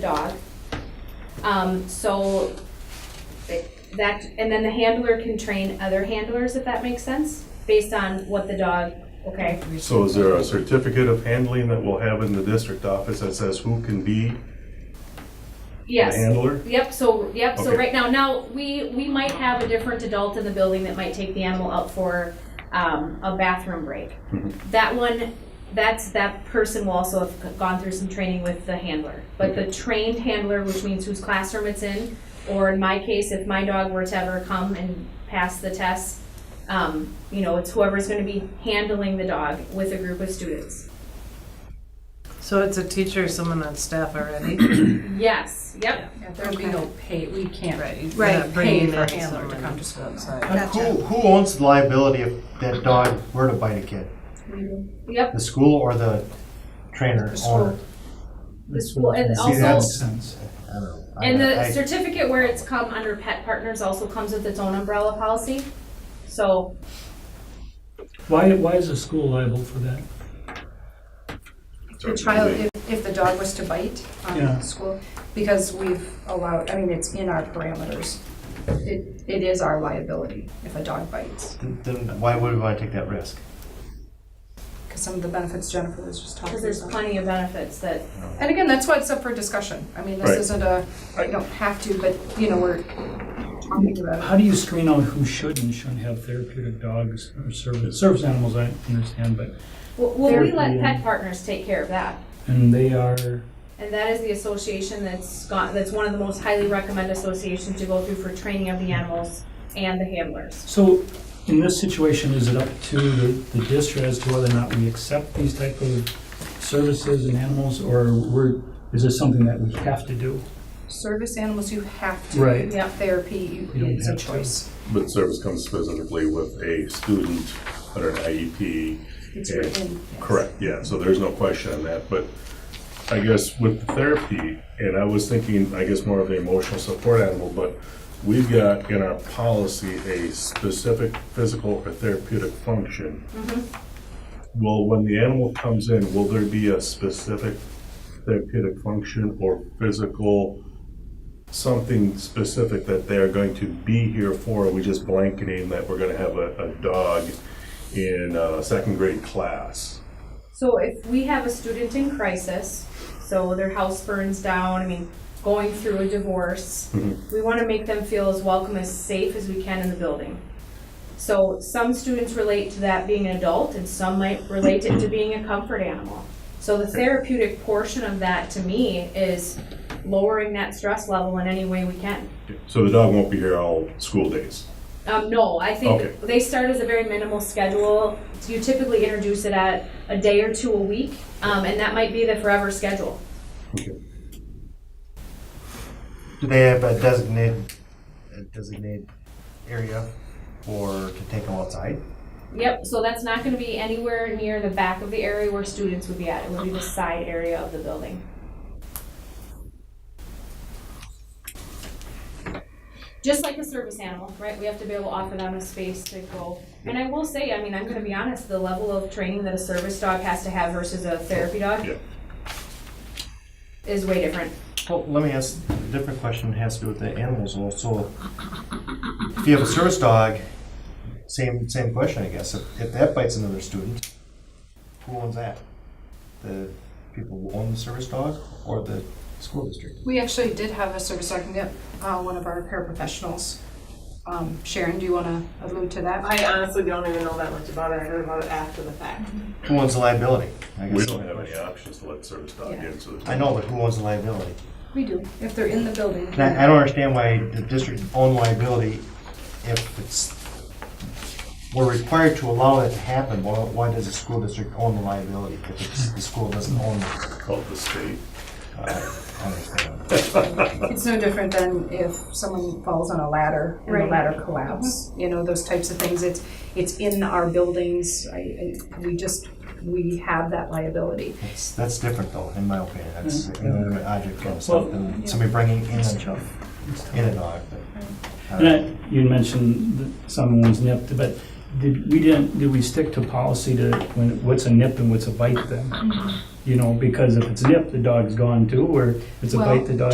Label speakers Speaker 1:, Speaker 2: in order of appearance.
Speaker 1: Um, so that, and then the handler can train other handlers, if that makes sense, based on what the dog, okay?
Speaker 2: So is there a certificate of handling that we'll have in the district office that says who can be the
Speaker 1: Yes.
Speaker 2: handler?
Speaker 1: Yep, so, yep, so
Speaker 2: Okay.
Speaker 1: right now, now, we, we might have a different adult in the building that might take the animal out for, um, a bathroom break.
Speaker 2: Mhm.
Speaker 1: That one, that's, that person will also have gone through some training with the handler. But the trained handler, which means whose classroom it's in, or in my case, if my dog were to ever come and pass the test, um, you know, it's whoever's gonna be handling the dog with a group of students.
Speaker 3: So it's a teacher, someone on staff already?
Speaker 1: Yes, yep.
Speaker 4: There would be no pay, we can't.
Speaker 3: Right. you're
Speaker 4: Right,
Speaker 3: not bringing
Speaker 4: pay for
Speaker 3: in
Speaker 4: handler to
Speaker 3: someone
Speaker 4: come to school.
Speaker 3: outside.
Speaker 5: Who, who owns the liability if that dog were to bite a kid?
Speaker 1: Yep,
Speaker 5: The school or the trainer, owner?
Speaker 1: the school, and
Speaker 5: See,
Speaker 1: also.
Speaker 5: that's- I don't know. I-
Speaker 1: And
Speaker 5: I-
Speaker 1: the certificate where it's come under pet partners also comes with its own umbrella policy. So,
Speaker 6: Why, why is the school liable for that?
Speaker 4: The child, if, if the dog was to bite
Speaker 6: Yeah.
Speaker 4: on school, because we've allowed, I mean, it's in our parameters. It, it is our liability if a dog bites,
Speaker 5: Then then why would we want to take that risk?
Speaker 4: because some of the benefits Jennifer was just talking
Speaker 1: because there's
Speaker 4: about.
Speaker 1: plenty of benefits that,
Speaker 4: And again, that's why it's up for discussion. I mean,
Speaker 2: Right.
Speaker 4: this isn't a, you don't have to, but, you know, we're talking about
Speaker 6: How do you screen out who should and shouldn't have therapeutic dogs or service, service animals, I understand, but,
Speaker 1: well, well, we
Speaker 6: Therapy
Speaker 1: let
Speaker 6: and-
Speaker 1: pet partners take care of that.
Speaker 6: and they are,
Speaker 1: And that is the association that's got, that's one of the most highly recommended associations to go through for training of the animals and the handlers.
Speaker 6: so in this situation, is it up to the, the district as to whether or not we accept these type of services and animals, or we're, is this something that we have to do?
Speaker 4: service animals, you have to.
Speaker 6: Right.
Speaker 1: Yep.
Speaker 4: Therapy
Speaker 6: You don't
Speaker 4: is a
Speaker 6: have to.
Speaker 4: choice.
Speaker 2: But service comes specifically with a student or an E IEP.
Speaker 4: It's
Speaker 2: and-
Speaker 4: written.
Speaker 2: Correct, yeah, so there's no question on that, but I guess with the therapy, and I was thinking, I guess more of the emotional support animal, but we've got in our policy a specific physical or therapeutic function. Well, when the animal comes in, will there be a specific therapeutic function or physical, something specific that they are going to be here for? Are we just blanketing that we're gonna have a, a dog in a second grade class?
Speaker 1: So if we have a student in crisis, so their house burns down, I mean, going through a divorce, we want to make them feel as welcome, as safe as we can in the building. So some students relate to that being an adult, and some might relate it to being a comfort animal. So the therapeutic portion of that, to me, is lowering that stress level in any way we can.
Speaker 2: So the dog won't be here all school days.
Speaker 1: Um, no, I
Speaker 2: Okay.
Speaker 1: think they start as a very minimal schedule. So you typically introduce it at a day or two a week, um, and that might be the forever schedule.
Speaker 5: Do they have a designated, a designated area for, to take them outside?
Speaker 1: Yep, so that's not gonna be anywhere near the back of the area where students would be at. It would be the side area of the building. Just like a service animal, right? We have to be able to offer them a space to go. And I will say, I mean, I'm gonna be honest, the level of training that a service dog has to have versus a therapy dog
Speaker 2: Yeah.
Speaker 1: is way different.
Speaker 5: Well, let me ask, a different question has to do with the animals also. If you have a service dog, same, same question, I guess. If, if that bites another student, who owns that? The people who own the service dog or the school district?
Speaker 4: We actually did have a service dog, yep, uh, one of our paraprofessionals. Um, Sharon, do you wanna allude to that?
Speaker 7: I honestly don't even know that much about it. I heard about it after the fact.
Speaker 5: Who owns the liability? I guess.
Speaker 2: We don't have any options to let service dog in, so.
Speaker 5: I know, but who owns the liability?
Speaker 4: We do, if they're in the building.
Speaker 5: And I, I don't understand why the district own liability if it's, we're required to allow that to happen, why, why does the school district own the liability if it's, the school doesn't own it?
Speaker 2: Called the state.
Speaker 5: I understand.
Speaker 4: It's no different than if someone falls on a ladder and the
Speaker 1: Right.
Speaker 4: ladder collapses, you know, those types of things. It's, it's in our buildings, I, I, we just, we have that liability.
Speaker 5: That's, that's different though, in my opinion, that's an inanimate object from
Speaker 6: Well-
Speaker 5: something, somebody bringing in a dog, in a dog. but,
Speaker 6: And
Speaker 5: uh,
Speaker 6: I, you mentioned that someone was nipped, but did, we didn't, did we stick to policy to, when, what's a nip and what's a bite then? You know, because if it's a nip, the dog's gone too, or if it's a
Speaker 4: Well-
Speaker 6: bite, the dog